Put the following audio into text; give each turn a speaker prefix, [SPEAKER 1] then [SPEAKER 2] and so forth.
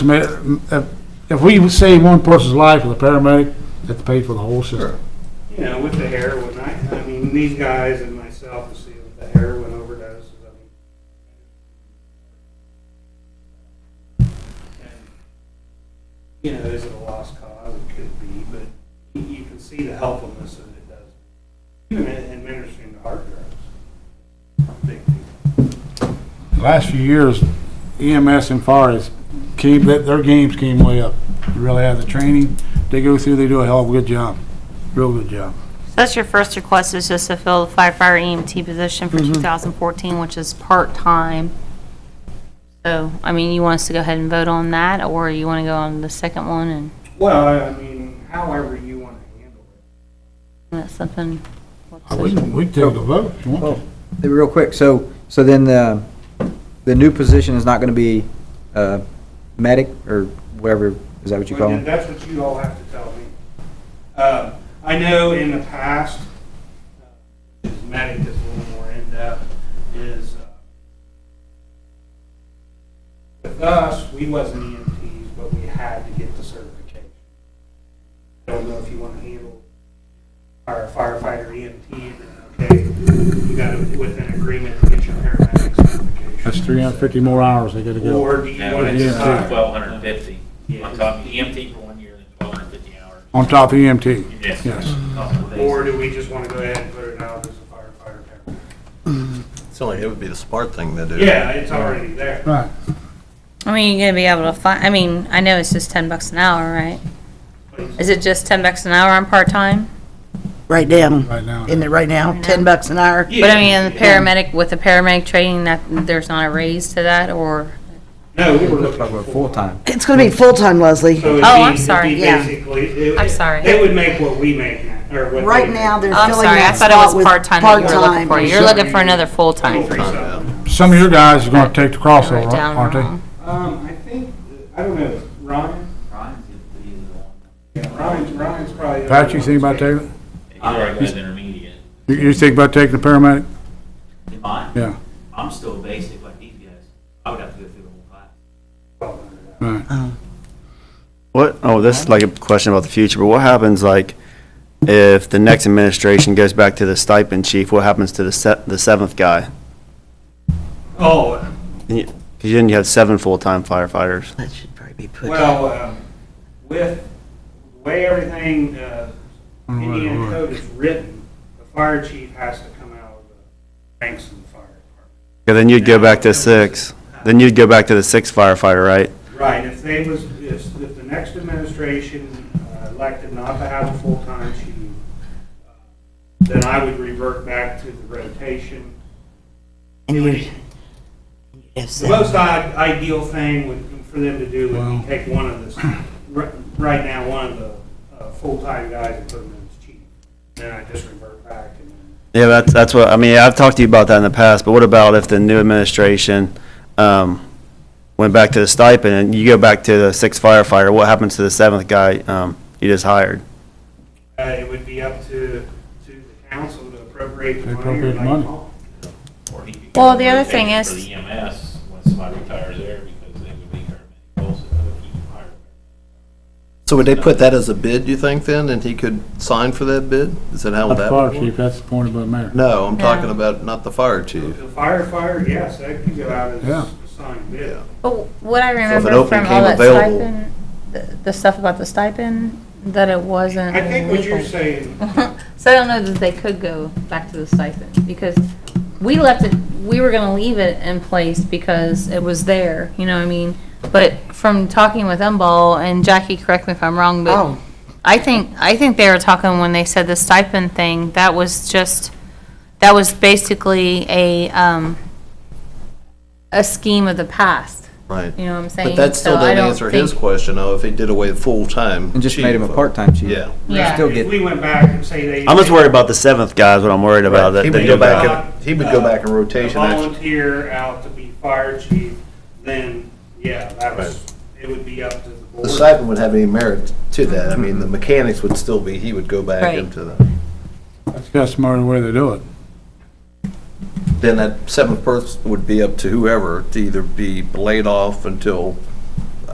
[SPEAKER 1] I mean, if, if we save one person's life with a paramedic, that's paid for the whole system.
[SPEAKER 2] you know, with the heroin, I, I mean, these guys and myself to see with the heroin overdoses, I mean. and, You know, is it a lost cause? It could be, but you- you can see the helpfulness that it does. Even in administering the hard drugs. Big deal.
[SPEAKER 1] The Last few years, EMS and fire has came, their their games came way up. You Really have the training, they go through, they do a hell of a good job, real good job.
[SPEAKER 3] That's your first request is just to fill the firefighter EMT position for
[SPEAKER 4] Mm-hmm.
[SPEAKER 3] 2014, which is part-time. So, I mean, you want us to go ahead and vote on that, or you want to go on the second one and,
[SPEAKER 2] Well, I- I mean, however you want to handle it.
[SPEAKER 3] that's something?
[SPEAKER 1] We can, we can take a vote if you want to.
[SPEAKER 5] Oh, Hey, Real quick, so, so then the, the new position is not going to be uh, medic or whatever, is that what you
[SPEAKER 2] Well,
[SPEAKER 5] call
[SPEAKER 2] then
[SPEAKER 5] it?
[SPEAKER 2] That's what you all have to tell me. Um, I know in the past, uh, this medic is a little more in-depth, is uh, with us, we wasn't EMTs, but we had to get the certification. I don't know if you want to handle our firefighter E EMT, okay? You got to, with an agreement, to get your paramedic certification.
[SPEAKER 1] That's three hundred and fifty more hours they gotta go.
[SPEAKER 2] Or do you
[SPEAKER 6] Yeah,
[SPEAKER 2] want to
[SPEAKER 1] it's
[SPEAKER 2] decide?
[SPEAKER 6] Twelve hundred and fifty, on top of EMT for one year, then twelve hundred and fifty hours.
[SPEAKER 1] On top of EMT,
[SPEAKER 6] Yes.
[SPEAKER 1] yes.
[SPEAKER 6] Couple of days.
[SPEAKER 2] Or do we just want to go ahead and put it out as a firefighter paramedic?
[SPEAKER 7] It's only, it would be the smart thing to do.
[SPEAKER 2] Yeah, it's already there.
[SPEAKER 1] Right.
[SPEAKER 3] I mean, you're gonna be able to find, I mean, I know it's just 10 bucks an hour, right? Is it just 10 bucks an hour on part-time?
[SPEAKER 4] Right down,
[SPEAKER 1] Right now.
[SPEAKER 4] in it right now, ten bucks an hour.
[SPEAKER 3] But I mean, the paramedic, with the paramedic training, that, there's not a raise to that, or?
[SPEAKER 2] No, we were
[SPEAKER 5] Looks
[SPEAKER 2] looking
[SPEAKER 5] like
[SPEAKER 2] for
[SPEAKER 5] we're
[SPEAKER 2] full-time.
[SPEAKER 5] full-time.
[SPEAKER 4] It's gonna be full-time, Leslie.
[SPEAKER 2] So it'd
[SPEAKER 3] Oh,
[SPEAKER 2] be-
[SPEAKER 3] I'm
[SPEAKER 2] it'd
[SPEAKER 3] sorry,
[SPEAKER 2] be
[SPEAKER 4] yeah.
[SPEAKER 2] Basically. it-
[SPEAKER 3] I'm sorry.
[SPEAKER 2] They would make what we make now, or what.
[SPEAKER 4] Right
[SPEAKER 2] they make.
[SPEAKER 4] now, they're
[SPEAKER 3] I'm
[SPEAKER 4] filling
[SPEAKER 3] sorry, I
[SPEAKER 4] that
[SPEAKER 3] thought it
[SPEAKER 4] spot
[SPEAKER 3] was
[SPEAKER 4] with
[SPEAKER 3] part-time that you were looking
[SPEAKER 4] part-time.
[SPEAKER 3] for. You're looking for another full-time.
[SPEAKER 2] Three something.
[SPEAKER 1] Some of your guys are gonna take the
[SPEAKER 3] Write
[SPEAKER 1] crossover,
[SPEAKER 3] down
[SPEAKER 1] aren't
[SPEAKER 3] wrong.
[SPEAKER 1] they?
[SPEAKER 2] Um, I think, I don't know, Ryan,
[SPEAKER 6] Ryan's the- he's the one.
[SPEAKER 2] yeah, Ryan's, Ryan's probably.
[SPEAKER 1] Pat, you think about taking, it?
[SPEAKER 6] He's already got his intermediate.
[SPEAKER 1] you, you think about taking the paramedic?
[SPEAKER 6] In mine,
[SPEAKER 1] Yeah,
[SPEAKER 6] I'm still basic like these guys. I would have to go through the whole class.
[SPEAKER 1] right.
[SPEAKER 8] What, oh, this is like a question about the future, but what happens like if the next administration goes back to the stipend chief, what happens to the se- the seventh guy?
[SPEAKER 2] Oh,
[SPEAKER 8] Because then you have seven full-time firefighters.
[SPEAKER 4] That should probably be put.
[SPEAKER 2] well, um, with the way everything, uh,
[SPEAKER 1] All Mm, right, all
[SPEAKER 2] Indiana
[SPEAKER 1] right.
[SPEAKER 2] code is written, the fire chief has to come out of the ranks of the fire department.
[SPEAKER 8] 'Cause then you'd go back to six. Then you'd go back to the sixth firefighter, right?
[SPEAKER 2] Right, if they was, if, if the next administration uh, elected not to have a full-time chief, uh, then I would revert back to the rotation.
[SPEAKER 4] And you would-
[SPEAKER 2] The most i- ideal thing would, for them to do would be take one of this, ri- right now, one of the uh, full-time guys and put him as chief. Then I just revert back and then
[SPEAKER 8] Yeah, that's, that's what, I mean, I've talked to you about that in the past, but what about if the new administration um, went back to the stipend and you go back to the sixth firefighter, what happens to the seventh guy um, you just hired?
[SPEAKER 2] Uh, It would be up to, to the council to appropriate the
[SPEAKER 1] To
[SPEAKER 2] money or
[SPEAKER 1] appropriate the
[SPEAKER 2] like
[SPEAKER 1] money.
[SPEAKER 2] Paul.
[SPEAKER 6] Or he could
[SPEAKER 3] Well,
[SPEAKER 6] go
[SPEAKER 3] the
[SPEAKER 6] to
[SPEAKER 3] other thing
[SPEAKER 6] rotation
[SPEAKER 3] is-
[SPEAKER 6] For the EMS, when somebody retires there, because they would be paramedic also, if you hire them.
[SPEAKER 7] So would they put that as a bid, you think, then, and he could sign for that bid? Is that how
[SPEAKER 1] Not
[SPEAKER 7] would
[SPEAKER 1] the
[SPEAKER 7] that?
[SPEAKER 1] fire
[SPEAKER 7] work?
[SPEAKER 1] chief, that's appointed by the mayor.
[SPEAKER 7] No, I'm talking
[SPEAKER 3] No.
[SPEAKER 7] about not the fire chief.
[SPEAKER 2] The firefighter, yes, that could go out as
[SPEAKER 1] Yeah.
[SPEAKER 2] a signed bid.
[SPEAKER 7] Yeah.
[SPEAKER 3] But what I
[SPEAKER 7] if an
[SPEAKER 3] remember
[SPEAKER 7] open
[SPEAKER 3] from all
[SPEAKER 7] came
[SPEAKER 3] that
[SPEAKER 7] available-
[SPEAKER 3] stipend, the- the stuff about the stipend, that it wasn't
[SPEAKER 2] I think what you're
[SPEAKER 3] legal.
[SPEAKER 2] saying,
[SPEAKER 3] So I don't know that they could go back to the stipend, because we left it, we were gonna leave it in place because it was there, you know what I mean? But from talking with Umball, and Jackie, correct me if I'm wrong, but
[SPEAKER 4] Oh,
[SPEAKER 3] I think, I think they were talking when they said the stipend thing, that was just, that was basically a, um, a scheme of the past,
[SPEAKER 7] Right.
[SPEAKER 3] you know what I'm saying?
[SPEAKER 7] But that still
[SPEAKER 3] So I
[SPEAKER 7] didn't
[SPEAKER 3] don't
[SPEAKER 7] answer his
[SPEAKER 3] think-
[SPEAKER 7] question, though, if he did away with full-time.
[SPEAKER 5] And just
[SPEAKER 7] chief. uh,
[SPEAKER 5] made him a part-time chief.
[SPEAKER 7] Yeah.
[SPEAKER 3] Yeah.
[SPEAKER 5] Still
[SPEAKER 2] if
[SPEAKER 5] get,
[SPEAKER 2] we went back and say they.
[SPEAKER 8] I'm just worried about the seventh guy is what I'm worried about.
[SPEAKER 7] Right.
[SPEAKER 8] that
[SPEAKER 7] He
[SPEAKER 8] the
[SPEAKER 7] would
[SPEAKER 8] new
[SPEAKER 7] go back,
[SPEAKER 8] guy.
[SPEAKER 7] in- he would go back in rotation,
[SPEAKER 2] uh, A
[SPEAKER 7] actually.
[SPEAKER 2] Volunteer out to be fire chief, then, yeah, that was, it would be up to the board.
[SPEAKER 7] The stipend would have any merit to that. I mean, the mechanics would still be, he would go back
[SPEAKER 3] Right.
[SPEAKER 7] into the,
[SPEAKER 1] That's got smarter way they do it.
[SPEAKER 7] then that seventh person would be up to whoever to either be laid off until